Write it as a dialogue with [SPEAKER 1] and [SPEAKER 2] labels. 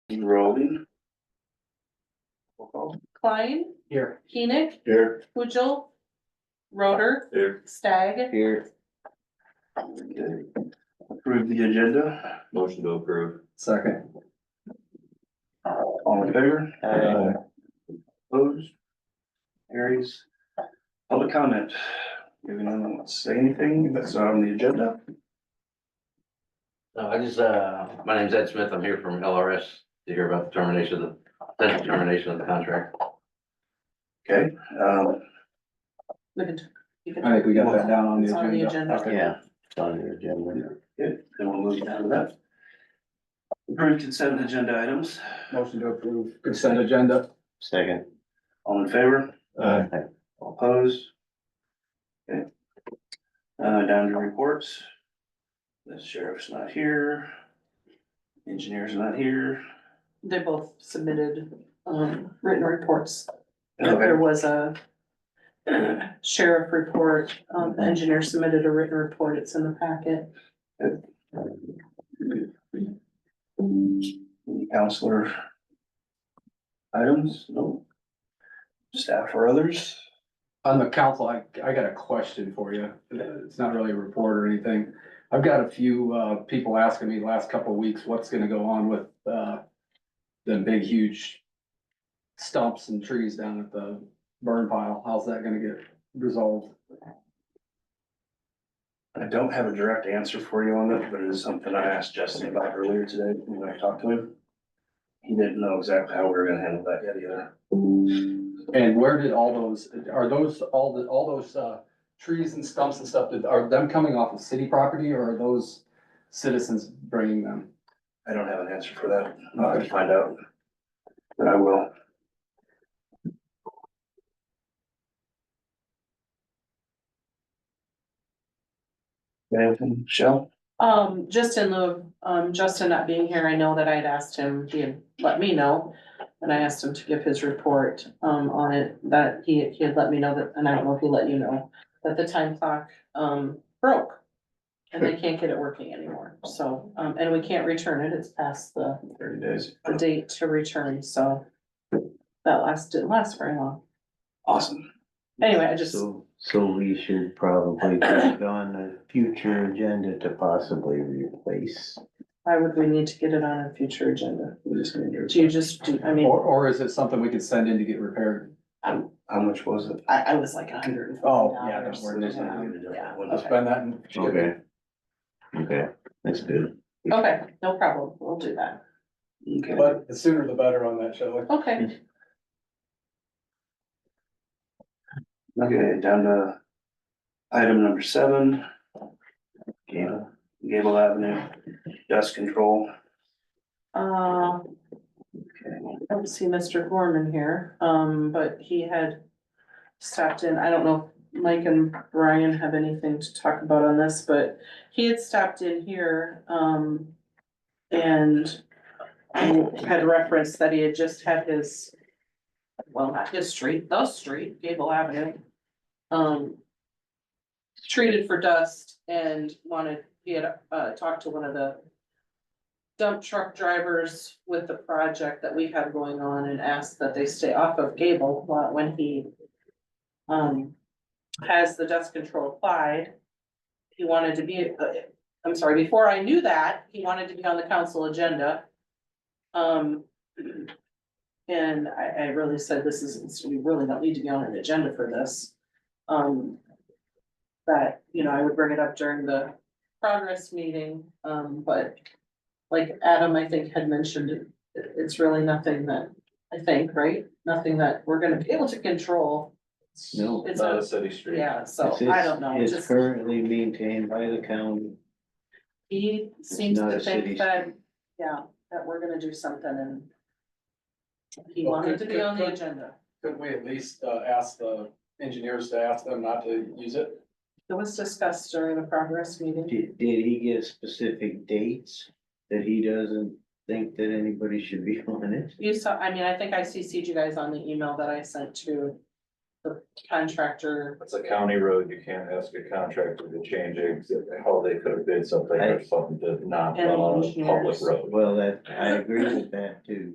[SPEAKER 1] Rolling.
[SPEAKER 2] Klein,
[SPEAKER 3] Here.
[SPEAKER 2] Keenick,
[SPEAKER 1] Here.
[SPEAKER 2] Pujil, Roder,
[SPEAKER 1] Here.
[SPEAKER 2] Stag,
[SPEAKER 4] Here,
[SPEAKER 1] Approve the agenda,
[SPEAKER 5] Motion to approve.
[SPEAKER 3] Second.
[SPEAKER 1] all in favor?
[SPEAKER 4] Aye.
[SPEAKER 1] Opposed? Carries. Public comment, if anyone wants to say anything that's not on the agenda,
[SPEAKER 6] No, I just, uh, my name's Ed Smith. I'm here from LRS to hear about the termination of the, potential termination of the contract.
[SPEAKER 1] okay, um,
[SPEAKER 2] we can, you
[SPEAKER 3] I
[SPEAKER 2] can,
[SPEAKER 3] think we got that down on the
[SPEAKER 2] It's on the
[SPEAKER 3] agenda.
[SPEAKER 2] agenda.
[SPEAKER 4] yeah, it's on your agenda.
[SPEAKER 1] Good, then we'll move down to that. Approved consent agenda items,
[SPEAKER 3] Motion to approve consent agenda.
[SPEAKER 4] Second.
[SPEAKER 1] all in favor,
[SPEAKER 3] Aye.
[SPEAKER 1] all opposed? Okay. Uh, down to reports. The sheriff's not here. Engineer's not here.
[SPEAKER 2] they both submitted, um, written reports.
[SPEAKER 1] Okay.
[SPEAKER 2] There was a sheriff report, um, the engineer submitted a written report, it's in the packet.
[SPEAKER 1] Any Counselor. Items, no. Staff or others,
[SPEAKER 3] On the council, I, I got a question for you. It's not really a report or anything. I've got a few, uh, people asking me the last couple of weeks, what's gonna go on with, uh, the big huge stumps and trees down at the burn pile. How's that gonna get resolved?
[SPEAKER 1] I don't have a direct answer for you on that, but it is something I asked Justin about earlier today when I talked to him. He didn't know exactly how we were gonna handle that yet either.
[SPEAKER 3] And where did all those, are those, all the, all those, uh, trees and stumps and stuff, did- are them coming off of city property or are those citizens bringing them?
[SPEAKER 1] I don't have an answer for that. I'll have to find out. But I will. Anything, Michelle?
[SPEAKER 2] Um, just in lieu of, um, Justin not being here, I know that I'd asked him, he had let me know. And I asked him to give his report, um, on it, that he, he had let me know that, and I don't know if he let you know, that the time clock, um, broke. And they can't get it working anymore, so, um, and we can't return it, it's past the,
[SPEAKER 1] Thirty days.
[SPEAKER 2] the date to return, so. That last, didn't last very long.
[SPEAKER 1] Awesome.
[SPEAKER 2] Anyway, I just,
[SPEAKER 4] So, so we should probably put it on a future agenda to possibly replace.
[SPEAKER 2] why would we need to get it on a future agenda?
[SPEAKER 1] We just need your-
[SPEAKER 2] Do you just, do? I mean,
[SPEAKER 3] Or, or is it something we could send in to get repaired?
[SPEAKER 1] How much was it?
[SPEAKER 2] I, I was like a hundred and fifty
[SPEAKER 3] Oh,
[SPEAKER 2] dollars. um,
[SPEAKER 3] yeah, don't worry, there's no
[SPEAKER 2] Yeah.
[SPEAKER 1] Let's
[SPEAKER 2] Okay.
[SPEAKER 3] that in.
[SPEAKER 4] Okay. Okay, that's good.
[SPEAKER 2] Okay, no problem, we'll do that.
[SPEAKER 1] Okay.
[SPEAKER 3] But the sooner the better on that, shall we?
[SPEAKER 2] Okay,
[SPEAKER 1] Okay, down to item number seven. Gable, Gable Avenue, dust control.
[SPEAKER 2] um, I don't see Mr. Gorman here, um, but he had stopped in, I don't know if Mike and Brian have anything to talk about on this, but he had stopped in here, um, and um, had referenced that he had just had his, well, not his street, the street, Gable Avenue, um, treated for dust and wanted, he had, uh, talked to one of the dump truck drivers with the project that we have going on and asked that they stay off of Gable while- when he um, has the dust control applied. He wanted to be, uh, I'm sorry, before I knew that, he wanted to be on the council agenda. Um, and I, I really said, this is, we really don't need to be on an agenda for this. Um, that, you know, I would bring it up during the progress meeting, um, but like Adam, I think, had mentioned, it, it's really nothing that, I think, right? Nothing that we're gonna be able to control.
[SPEAKER 4] No.
[SPEAKER 2] It's not,
[SPEAKER 5] city street.
[SPEAKER 2] yeah, so
[SPEAKER 4] It's-
[SPEAKER 2] I don't know,
[SPEAKER 4] It's
[SPEAKER 2] just,
[SPEAKER 4] currently maintained by the county.
[SPEAKER 2] he seems
[SPEAKER 4] not
[SPEAKER 2] to
[SPEAKER 4] a city
[SPEAKER 2] think that,
[SPEAKER 4] street.
[SPEAKER 2] yeah, that we're gonna do something and he wanted to be on the agenda.
[SPEAKER 3] Couldn't we at least, uh, ask the engineers to ask them not to use it?
[SPEAKER 2] It was discussed during the progress meeting.
[SPEAKER 4] Did, did he get specific dates that he doesn't think that anybody should be on it?
[SPEAKER 2] You saw, I mean, I think I CC'd you guys on the email that I sent to the contractor.
[SPEAKER 5] It's a county road, you can't ask a contractor to change it, how they could have did something or something to not,
[SPEAKER 2] And
[SPEAKER 5] on a public
[SPEAKER 2] engineers.
[SPEAKER 5] road.
[SPEAKER 4] Well, that, I agree with that too.